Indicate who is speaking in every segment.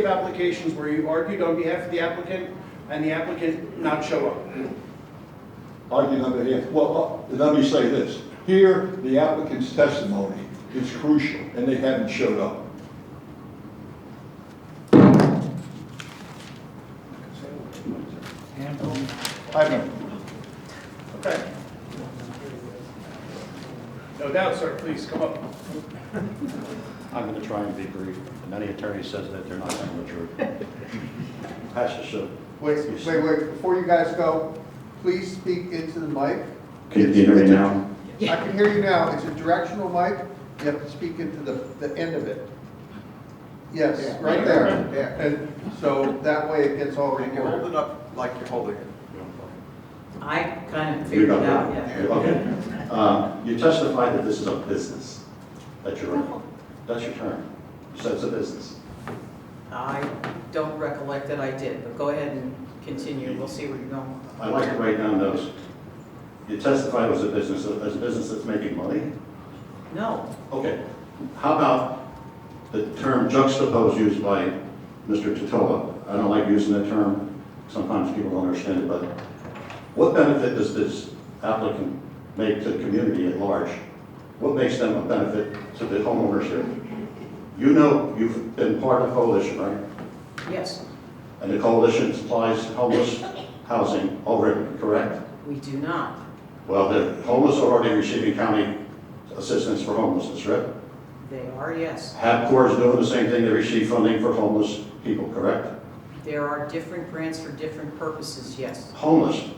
Speaker 1: of applications where you argued on behalf of the applicant and the applicant not show up.
Speaker 2: arguing on behalf, well, uh, let me say this. Here, the applicant's testimony is crucial, and they haven't showed up. I know.
Speaker 1: Okay. No doubt, sir, please come up.
Speaker 3: I'm going to try and be brief. Many attorneys says that they're not telling the truth. That's just a...
Speaker 4: Wait, wait, wait, before you guys go, please speak into the mic.
Speaker 5: Can you hear me now?
Speaker 4: I can hear you now, it's a directional mic, you have to speak into the, the end of it. Yes, right there.
Speaker 6: Yeah.
Speaker 4: And so that way it gets all
Speaker 6: You can hold
Speaker 4: recorded.
Speaker 6: it up like you're holding it.
Speaker 7: I kind of
Speaker 5: You're not
Speaker 7: figured it out,
Speaker 5: there.
Speaker 7: yeah.
Speaker 5: You're- Okay. Um, You testified that this is a business, that you're, in. that's your term. You said it's a business.
Speaker 7: I don't recollect that I did, but go ahead and continue, we'll see where you're going.
Speaker 5: I'd like to write down those. You testified it was a business, as a business that's making money?
Speaker 7: No,
Speaker 5: Okay. How about the term juxtapose used by Mr. Totola? I don't like using that term. Sometimes people don't understand it, but what benefit does this applicant make to the community at large? What makes them a benefit to the homeowners here? You know, you've been part of the coalition, right?
Speaker 7: yes,
Speaker 5: And the coalition supplies homeless housing over it, correct?
Speaker 7: we do not.
Speaker 5: Well, the homeless are already receiving county assistance for homelessness, right?
Speaker 7: They are, yes.
Speaker 5: HAPCOR is doing the same thing, they receive funding for homeless people, correct?
Speaker 7: There are different grants for different purposes, yes.
Speaker 5: Homeless,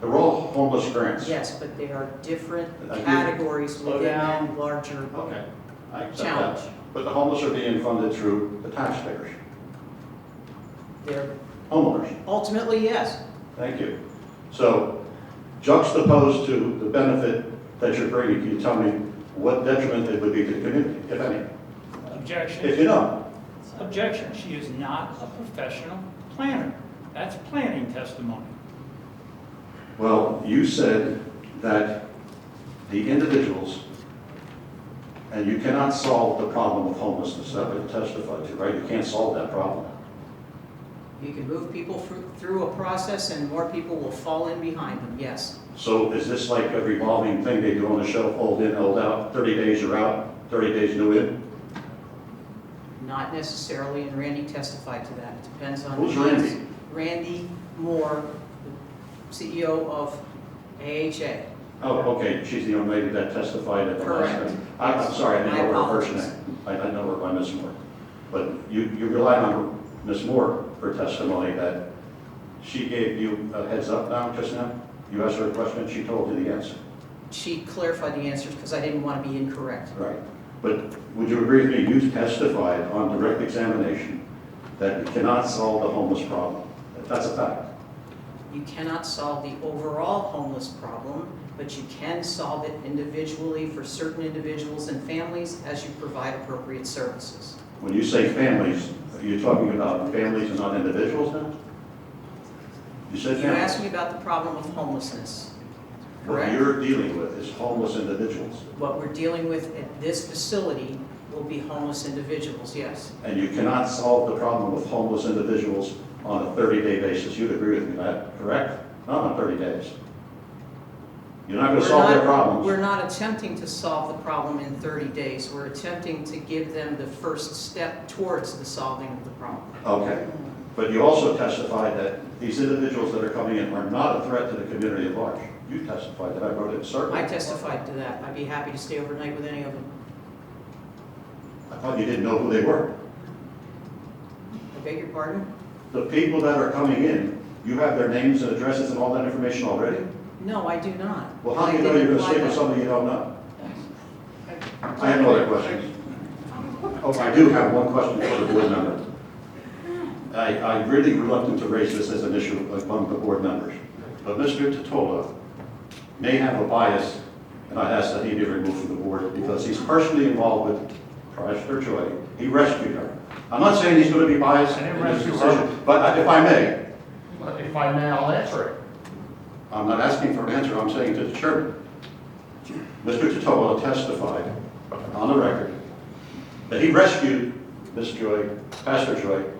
Speaker 5: they're all homeless grants.
Speaker 7: Yes, but they are different
Speaker 5: I do-
Speaker 7: categories
Speaker 1: Slow
Speaker 7: within
Speaker 1: down.
Speaker 7: that larger
Speaker 5: Okay, I accept
Speaker 7: challenge.
Speaker 5: that. But the homeless are being funded through the taxpayers,
Speaker 7: They're,
Speaker 5: homeowners.
Speaker 7: ultimately, yes,
Speaker 5: Thank you. So juxtaposed to the benefit that you're bringing, can you tell me what detriment it would be to the community, if any? If you
Speaker 8: Objection,
Speaker 5: don't,
Speaker 8: objection, she is not a professional planner. That's planning testimony.
Speaker 5: well, you said that the individuals, and you cannot solve the problem of homelessness, that we testified to, right? You can't solve that problem.
Speaker 7: you can move people through, through a process and more people will fall in behind them, yes.
Speaker 5: So is this like a revolving thing they do on the shelf, old in, old out, 30 days you're out, 30 days new in?
Speaker 7: Not necessarily, and Randy testified to that. It depends on.
Speaker 5: Who's Randy?
Speaker 7: Randy Moore, the CEO of AHA.
Speaker 5: Oh, okay, she's the young lady that testified at the last
Speaker 7: Correct.
Speaker 5: time. I- I'm sorry, I didn't
Speaker 7: My
Speaker 5: know her first
Speaker 7: apologies.
Speaker 5: name. I I know her by Ms. Moore. But you you relied on Ms. Moore for testimony that she gave you a heads up now, just now? You asked her a question, she told you the answer.
Speaker 7: She clarified the answers because I didn't want to be incorrect.
Speaker 5: Right. But would you agree with me, you testified on direct examination that you cannot solve the homeless problem? That's a fact.
Speaker 7: You cannot solve the overall homeless problem, but you can solve it individually for certain individuals and families as you provide appropriate services.
Speaker 5: When you say families, are you talking about families and not individuals now? You
Speaker 7: You
Speaker 5: said
Speaker 7: asked
Speaker 5: families.
Speaker 7: me about the problem of homelessness.
Speaker 5: What
Speaker 7: correct.
Speaker 5: you're dealing with is homeless individuals,
Speaker 7: What we're dealing with at this facility will be homeless individuals, yes.
Speaker 5: and you cannot solve the problem with homeless individuals on a 30-day basis. You'd agree with me, that, correct? Not on 30 days. You're not going to
Speaker 7: We're
Speaker 5: solve their
Speaker 7: not- We're
Speaker 5: problems.
Speaker 7: not attempting to solve the problem in 30 days. We're attempting to give them the first step towards the solving of the problem.
Speaker 5: Okay. But you also testified that these individuals that are coming in are not a threat to the community at large. You testified that, I wrote it, certainly.
Speaker 7: I testified to that. I'd be happy to stay overnight with any of them.
Speaker 5: I thought you didn't know who they were.
Speaker 7: I beg your pardon?
Speaker 5: The people that are coming in, you have their names and addresses and all that information already?
Speaker 7: No, I do not.
Speaker 5: Well, how do you
Speaker 7: I
Speaker 5: know you're
Speaker 7: didn't
Speaker 5: gonna
Speaker 7: apply
Speaker 5: sleep with
Speaker 7: that.
Speaker 5: somebody you don't know? I have no other questions. Oh, I do have one question for the board member. I, I'm really reluctant to raise this as an issue among the board members, but Mr. Totola may have a bias, and I ask that he be removed from the board because he's personally involved with Prior Joy. He rescued her. I'm not saying he's gonna be biased
Speaker 9: I didn't
Speaker 5: in this
Speaker 9: rescue her.
Speaker 5: decision, but if I may,
Speaker 9: But If I may, I'll answer it.
Speaker 5: I'm not asking for an answer, I'm saying to the chairman. Mr. Totola testified on the record that he rescued Ms. Joy, Pastor Joy,